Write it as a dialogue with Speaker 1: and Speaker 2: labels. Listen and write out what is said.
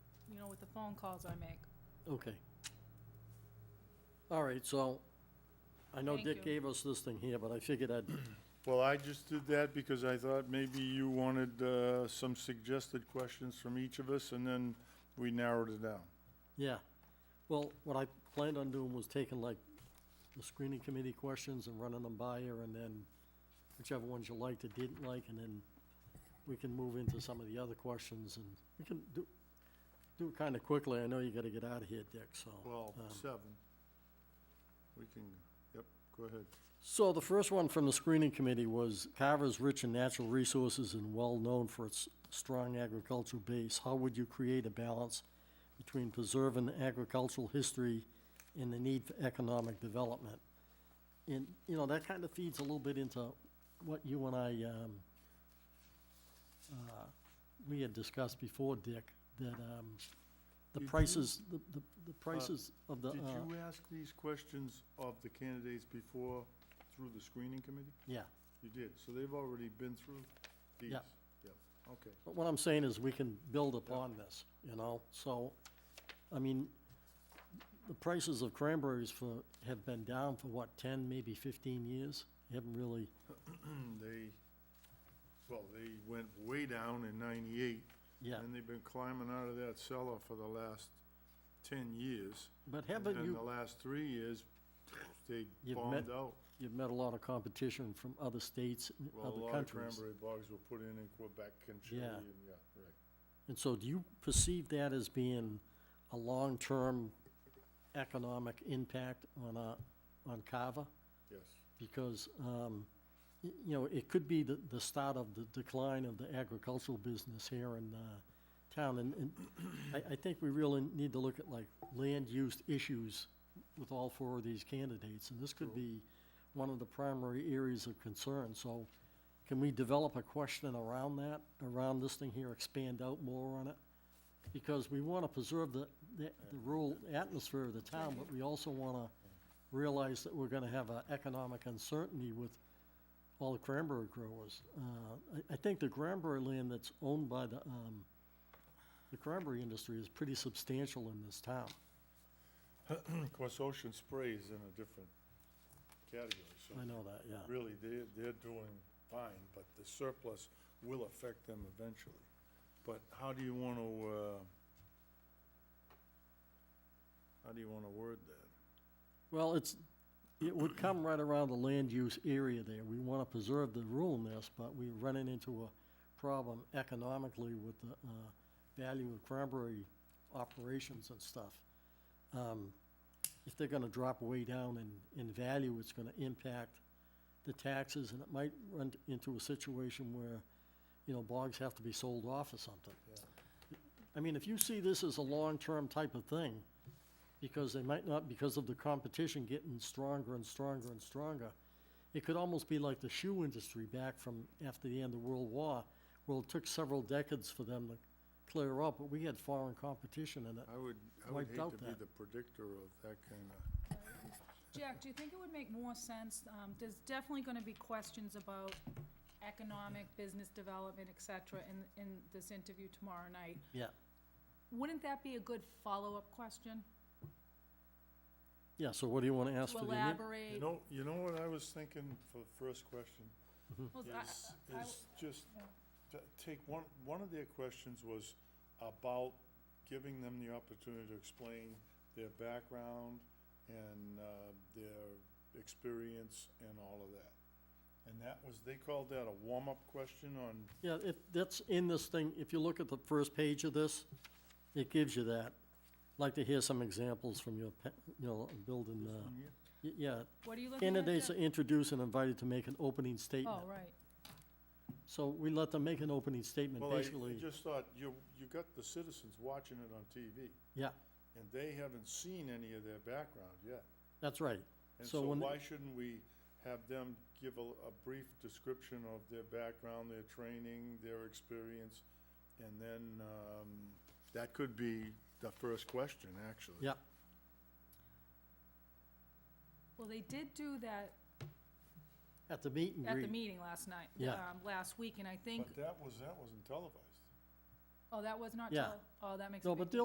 Speaker 1: with the phone calls I make.
Speaker 2: Okay. All right, so, I know
Speaker 1: Thank
Speaker 2: Dick
Speaker 1: you.
Speaker 2: gave us this thing here, but I figured I'd,
Speaker 3: Well, I just did that because I thought maybe you wanted uh, some suggested questions from each of us, and then we narrowed it down.
Speaker 2: yeah. Well, what I planned on doing was taking like the screening committee questions and running them by her, and then whichever ones you liked or didn't like, and then we can move into some of the other questions, and we can do, do it kinda quickly. I know you gotta get out of here, Dick, so.
Speaker 3: Well,
Speaker 2: um,
Speaker 3: seven. We can, yep, go ahead.
Speaker 2: So the first one from the screening committee was Carver's rich in natural resources and well-known for its strong agricultural base. How would you create a balance between preserving agricultural history and the need for economic development? And, you know, that kind of feeds a little bit into what you and I, um, uh, we had discussed before, Dick, that, um, the
Speaker 3: Did you-
Speaker 2: prices, the, the- the prices of the, uh,
Speaker 3: Did you ask these questions of the candidates before through the screening committee?
Speaker 2: yeah.
Speaker 3: You did, so they've already been through these?
Speaker 2: Yeah.
Speaker 3: Yep, okay.
Speaker 2: But what I'm saying is, we can build upon this, you know, so, I mean, the prices of cranberries for, have been down for what, ten, maybe fifteen years? They Haven't really,
Speaker 3: They, well, they went way down in ninety-eight,
Speaker 2: yeah,
Speaker 3: and they've been climbing out of that cellar for the last ten years.
Speaker 2: but
Speaker 3: And
Speaker 2: haven't
Speaker 3: then the
Speaker 2: you,
Speaker 3: last three years, they
Speaker 2: You've
Speaker 3: bombed
Speaker 2: met
Speaker 3: out.
Speaker 2: you've met a lot of competition from other states and
Speaker 3: Well, a
Speaker 2: other
Speaker 3: lot of
Speaker 2: countries.
Speaker 3: cranberry bogs were put in in Quebec and Chile,
Speaker 2: Yeah.
Speaker 3: and yeah, right.
Speaker 2: And so do you perceive that as being a long-term economic impact on, uh, on Carver?
Speaker 3: Yes,
Speaker 2: because, um, y- you know, it could be the, the start of the decline of the agricultural business here in, uh, town, and, and I, I think we really need to look at like land use issues with all four of these candidates, and this could
Speaker 3: True.
Speaker 2: be one of the primary areas of concern, so can we develop a question around that, around this thing here, expand out more on it? Because we wanna preserve the, the, the rural atmosphere of the town, but we also wanna realize that we're gonna have an economic uncertainty with all the cranberry growers. Uh, I, I think the cranberry land that's owned by the, um, the cranberry industry is pretty substantial in this town.
Speaker 3: of course, ocean spray is in a different category, so
Speaker 2: I know that, yeah.
Speaker 3: really, they're, they're doing fine, but the surplus will affect them eventually. But how do you wanna, uh, how do you wanna word that?
Speaker 2: Well, it's, it would come right around the land use area there. We wanna preserve the ruralness, but we're running into a problem economically with the, uh, value of cranberry operations and stuff. Um, If they're gonna drop way down in, in value, it's gonna impact the taxes, and it might run into a situation where, you know, bogs have to be sold off or something. I mean, if you see this as a long-term type of thing, because they might not, because of the competition getting stronger and stronger and stronger. It could almost be like the shoe industry back from after the end of World War. Well, it took several decades for them to clear up, but we had foreign competition in it.
Speaker 3: I would, I would
Speaker 2: Wiped
Speaker 3: hate
Speaker 2: out
Speaker 3: to be
Speaker 2: that.
Speaker 3: the predictor of that kinda,
Speaker 1: Jack, do you think it would make more sense, um, there's definitely gonna be questions about economic, business development, et cetera, in, in this interview tomorrow night.
Speaker 2: Yeah,
Speaker 1: Wouldn't that be a good follow-up question?
Speaker 2: yeah, so what do you wanna ask
Speaker 1: To
Speaker 2: for the? ne-
Speaker 3: you
Speaker 1: elaborate,
Speaker 3: know, you know what I was thinking for the first question?
Speaker 1: well, I-
Speaker 3: is,
Speaker 1: I- I-
Speaker 3: is just,
Speaker 1: yeah.
Speaker 3: t- take one, one of their questions was about giving them the opportunity to explain their background and, uh, their experience and all of that. And that was, they called that a warm-up question on,
Speaker 2: Yeah, if, that's in this thing, if you look at the first page of this, it gives you that. Like to hear some examples from your, pa- you know, building, uh,
Speaker 3: on here?
Speaker 2: y- yeah.
Speaker 1: what are you looking at?
Speaker 2: Candidates are
Speaker 1: Jack?
Speaker 2: introduced and invited to make an opening statement.
Speaker 1: Oh, right,
Speaker 2: So we let them make an opening statement,
Speaker 3: Well, I, I
Speaker 2: basically,
Speaker 3: just thought, you, you got the citizens watching it on TV,
Speaker 2: yeah,
Speaker 3: and they haven't seen any of their background yet.
Speaker 2: that's right.
Speaker 3: And
Speaker 2: So
Speaker 3: so
Speaker 2: when,
Speaker 3: why shouldn't we have them give a, a brief description of their background, their training, their experience? And then, um, that could be the first question, actually.
Speaker 2: yeah,
Speaker 1: well, they did do that
Speaker 2: at the meet and
Speaker 1: at the
Speaker 2: greet.
Speaker 1: meeting last night,
Speaker 2: Yeah.
Speaker 1: um, last week, and I think,
Speaker 3: But that was, that wasn't televised.
Speaker 1: oh, that was not,
Speaker 2: Yeah.
Speaker 1: tele- oh, that makes a
Speaker 2: No,
Speaker 1: big
Speaker 2: but they'll